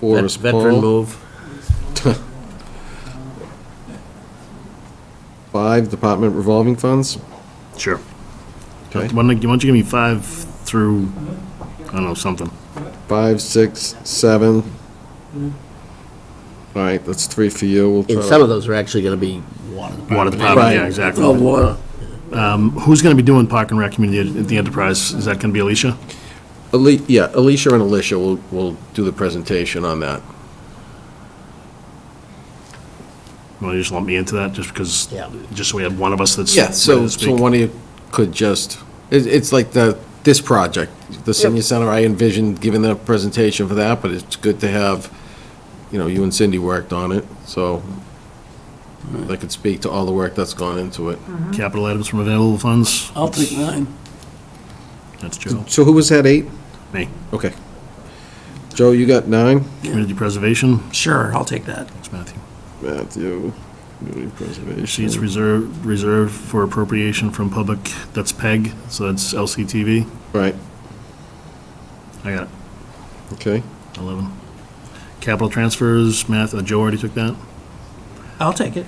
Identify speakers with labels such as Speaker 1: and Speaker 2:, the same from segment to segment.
Speaker 1: Four
Speaker 2: Vet-
Speaker 1: is
Speaker 2: Veteran
Speaker 1: Paul.
Speaker 2: move.
Speaker 1: Five, department revolving funds.
Speaker 3: Sure. Why
Speaker 1: Okay.
Speaker 3: don't you why don't you give me five through, I don't know, something.
Speaker 1: Five, six, seven. Hmm. All right, that's three for you. We'll
Speaker 2: And
Speaker 1: try
Speaker 2: some
Speaker 1: to-
Speaker 2: of those are actually going to be water.
Speaker 3: Water
Speaker 1: Right.
Speaker 3: department, yeah, exactly.
Speaker 2: Oh, water.
Speaker 3: Um, Who's going to be doing Park and Rec Community at the Enterprise? Is that going to be Alicia?
Speaker 1: Ali- Yeah, Alicia and Alicia will, will do the presentation on that.
Speaker 3: Want to just lump me into that, just because,
Speaker 2: Yeah.
Speaker 3: just so we have one of us that's.
Speaker 1: Yeah,
Speaker 3: ready
Speaker 1: so,
Speaker 3: to
Speaker 1: so
Speaker 3: speak?
Speaker 1: one of you could just, it, it's like the, this project, the senior center, I envisioned giving the presentation for that, but it's good to have, you know, you and Cindy worked on it, so they could speak to all the work that's gone into it.
Speaker 3: Capital items from available funds,
Speaker 4: I'll take nine.
Speaker 3: that's Joe.
Speaker 1: So who was that, eight?
Speaker 3: Me.
Speaker 1: Okay. Joe, you got nine?
Speaker 3: Community preservation,
Speaker 4: Sure, I'll take that.
Speaker 3: that's Matthew.
Speaker 1: Matthew, community preservation.
Speaker 3: Receipts reserved, reserved for appropriation from public, that's PEG, so that's LCTV.
Speaker 1: Right,
Speaker 3: I got it,
Speaker 1: okay.
Speaker 3: 11. Capital transfers, Math, uh, Joe already took that?
Speaker 4: I'll take it.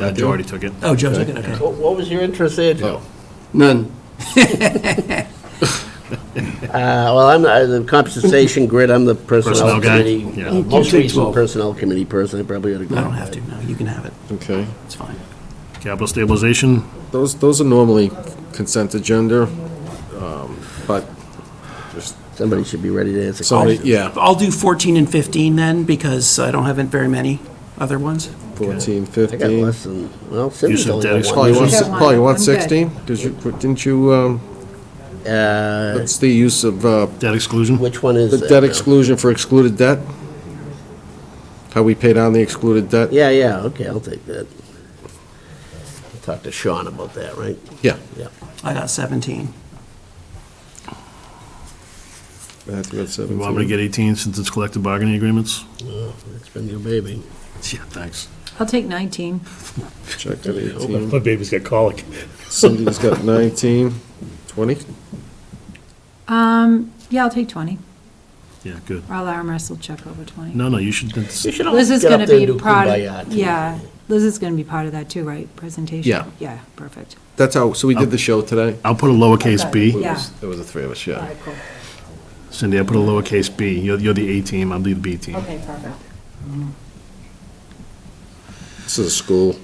Speaker 3: Uh, Joe already took it.
Speaker 4: Oh, Joe took it, okay.
Speaker 2: What what was your interest there, Joe?
Speaker 1: None.
Speaker 2: Uh, Well, I'm uh, the compensation grid, I'm the
Speaker 3: Personnel
Speaker 2: personnel
Speaker 3: guy,
Speaker 2: committee. Uh,
Speaker 3: yeah.
Speaker 2: Most recent personnel committee person, I probably ought to
Speaker 4: I
Speaker 2: go.
Speaker 4: don't have to, no, you can have it,
Speaker 1: Okay.
Speaker 4: it's fine.
Speaker 3: Capital stabilization,
Speaker 1: Those, those are normally consent agenda, um, but just
Speaker 2: Somebody should be ready to answer
Speaker 1: Somebody,
Speaker 2: questions.
Speaker 1: yeah,
Speaker 4: I'll do 14 and 15 then, because I don't have very many other ones.
Speaker 1: 14,
Speaker 2: I got
Speaker 1: 15.
Speaker 2: less than, well, Cindy's
Speaker 3: Use of
Speaker 2: only
Speaker 3: debt
Speaker 2: got
Speaker 1: Paul, you
Speaker 2: one.
Speaker 1: want,
Speaker 5: Don't want
Speaker 1: Paul, you
Speaker 5: it.
Speaker 1: want
Speaker 5: I'm good.
Speaker 1: 16? Did you, didn't you, um,
Speaker 2: Uh,
Speaker 1: that's the use of, uh,
Speaker 3: debt exclusion,
Speaker 2: Which one is
Speaker 1: the
Speaker 2: Uh, that,
Speaker 1: debt
Speaker 2: Bill?
Speaker 1: exclusion for excluded debt? How we pay down the excluded debt?
Speaker 2: Yeah, yeah, okay, I'll take that. I'll Talk to Sean about that, right?
Speaker 1: Yeah.
Speaker 2: Yeah.
Speaker 4: I got 17.
Speaker 1: Matthew at
Speaker 3: you want me
Speaker 1: 17.
Speaker 3: to get 18 since it's collective bargaining agreements?
Speaker 2: Well, Uh, It's been your baby.
Speaker 3: Yeah, thanks.
Speaker 5: I'll take 19.
Speaker 1: Check at 18.
Speaker 3: Oh, My baby's got colic.
Speaker 1: Cindy's got 19, 20?
Speaker 5: Um, yeah, I'll take 20.
Speaker 3: Yeah, good.
Speaker 5: Or I'll arm wrestle check over 20.
Speaker 3: No, no, you should, that's-
Speaker 2: You should all
Speaker 5: Liz is
Speaker 2: get up
Speaker 5: going to
Speaker 2: there and
Speaker 5: be
Speaker 2: do
Speaker 5: part
Speaker 2: kumbaya.
Speaker 5: of,
Speaker 2: too.
Speaker 5: yeah, Liz is going to be part of that too, right? Presentation?
Speaker 1: Yeah.
Speaker 5: Yeah, perfect.
Speaker 1: That's how, so we did the show today?
Speaker 3: I'll put a lowercase
Speaker 5: Okay.
Speaker 3: b.
Speaker 5: Yeah.
Speaker 1: There was the three of us,
Speaker 5: All
Speaker 1: yeah.
Speaker 5: right, cool.
Speaker 3: Cindy, I put a lowercase b. You're, you're the A team, I'll be the B team.
Speaker 5: Okay, perfect.
Speaker 1: This is a school.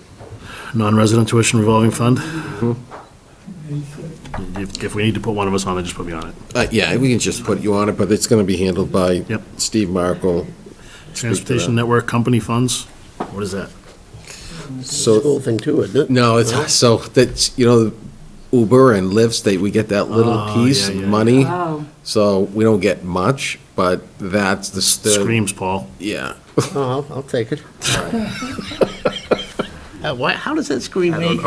Speaker 3: Non-resident tuition revolving fund?
Speaker 5: Mm-hmm.
Speaker 3: If, if we need to put one of us on it, just put me on it.
Speaker 1: Uh, yeah, we can just put you on it, but it's gonna be handled by
Speaker 3: Yep.
Speaker 1: Steve Markle.
Speaker 3: Transportation Network Company Funds, what is that?
Speaker 1: So,
Speaker 2: Cool thing too, isn't it?
Speaker 1: No, it's, so that's, you know, Uber and Lyft, they, we get that little
Speaker 3: Oh,
Speaker 1: piece
Speaker 3: yeah,
Speaker 1: of
Speaker 3: yeah.
Speaker 1: money.
Speaker 5: Oh,
Speaker 1: So we don't get much, but that's the. the-
Speaker 3: Screams, Paul.
Speaker 1: Yeah.
Speaker 2: Oh, I'll- I'll take it. Uh, why, how does that scream me?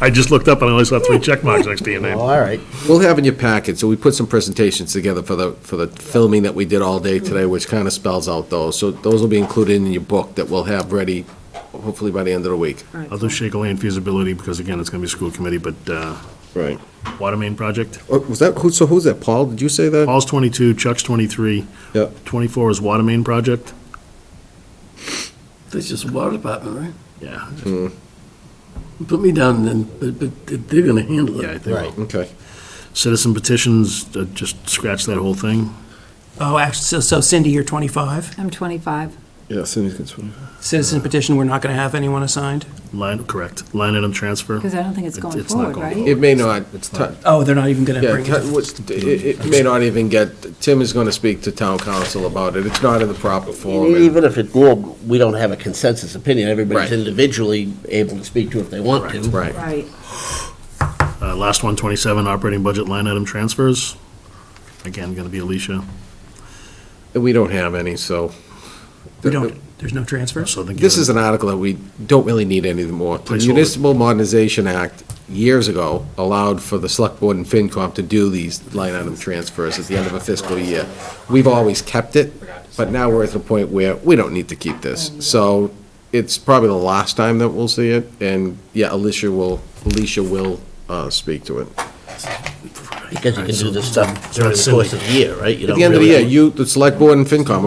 Speaker 3: I just looked up and I only saw three check marks next to your
Speaker 2: Oh,
Speaker 3: name.
Speaker 2: all right.
Speaker 1: We'll have in your packet, so we put some presentations together for the, for the filming that we did all day today, which kind of spells out those. So those will be included in your book that we'll have ready, hopefully by the end of the week.
Speaker 5: all right.
Speaker 3: I'll do Shaker Lane feasibility, because again, it's gonna be school committee, but, uh,
Speaker 1: Right.
Speaker 3: water main project.
Speaker 1: Oh, Was that, who, so who's that, Paul? Did you say that?
Speaker 3: Paul's twenty-two, Chuck's twenty-three.
Speaker 1: Yeah.
Speaker 3: Twenty-four is water main project.
Speaker 6: That's just water department, right?
Speaker 3: Yeah,
Speaker 6: Put me down then, but, but they're gonna handle
Speaker 3: yeah, I
Speaker 6: it.
Speaker 3: think.
Speaker 2: Right.
Speaker 1: Okay.
Speaker 3: Citizen petitions, uh, just scratch that whole thing.
Speaker 4: Oh, actually, so Cindy, you're 25.
Speaker 5: I'm 25.
Speaker 1: Yeah, Cindy's got.
Speaker 4: Citizen petition, we're not going to have anyone assigned?
Speaker 3: Line, correct, line item transfer.
Speaker 5: Because I don't think it's
Speaker 3: It-
Speaker 5: going
Speaker 3: it's not
Speaker 5: forward,
Speaker 3: going
Speaker 5: right?
Speaker 3: forward.
Speaker 1: It may not.
Speaker 3: It's not.
Speaker 4: Oh, they're not even going to
Speaker 1: Yeah,
Speaker 4: bring
Speaker 1: t-
Speaker 4: it?
Speaker 1: what's- it it may not even get, Tim is going to speak to town council about it. It's not in the proper
Speaker 2: Oh,
Speaker 1: form. and-
Speaker 2: Even if it, well, we don't have a consensus opinion. Everybody's
Speaker 1: Right.
Speaker 2: individually able to speak to if they want to.
Speaker 1: Right.
Speaker 5: Right.
Speaker 3: Uh, Last one, 27, operating budget line item transfers. Again, going to be Alicia.
Speaker 1: And we don't have any, so.
Speaker 4: We don't, there's no transfers?
Speaker 3: So I think
Speaker 1: This
Speaker 3: you're-
Speaker 1: is an article that we don't really need any more. The
Speaker 3: Placeholder.
Speaker 1: Municipal Modernization Act, years ago, allowed for the select board and FinCom to do these line item transfers at the end of a fiscal year. We've always kept it, but now we're at the point where we don't need to keep this. So it's probably the last time that we'll see it, and yeah, Alicia will, Alicia will uh, speak to it.
Speaker 2: Because you can do this stuff during the
Speaker 3: Cindy.
Speaker 2: course of the year, right?
Speaker 1: At the end of the year, you, the select board and FinCom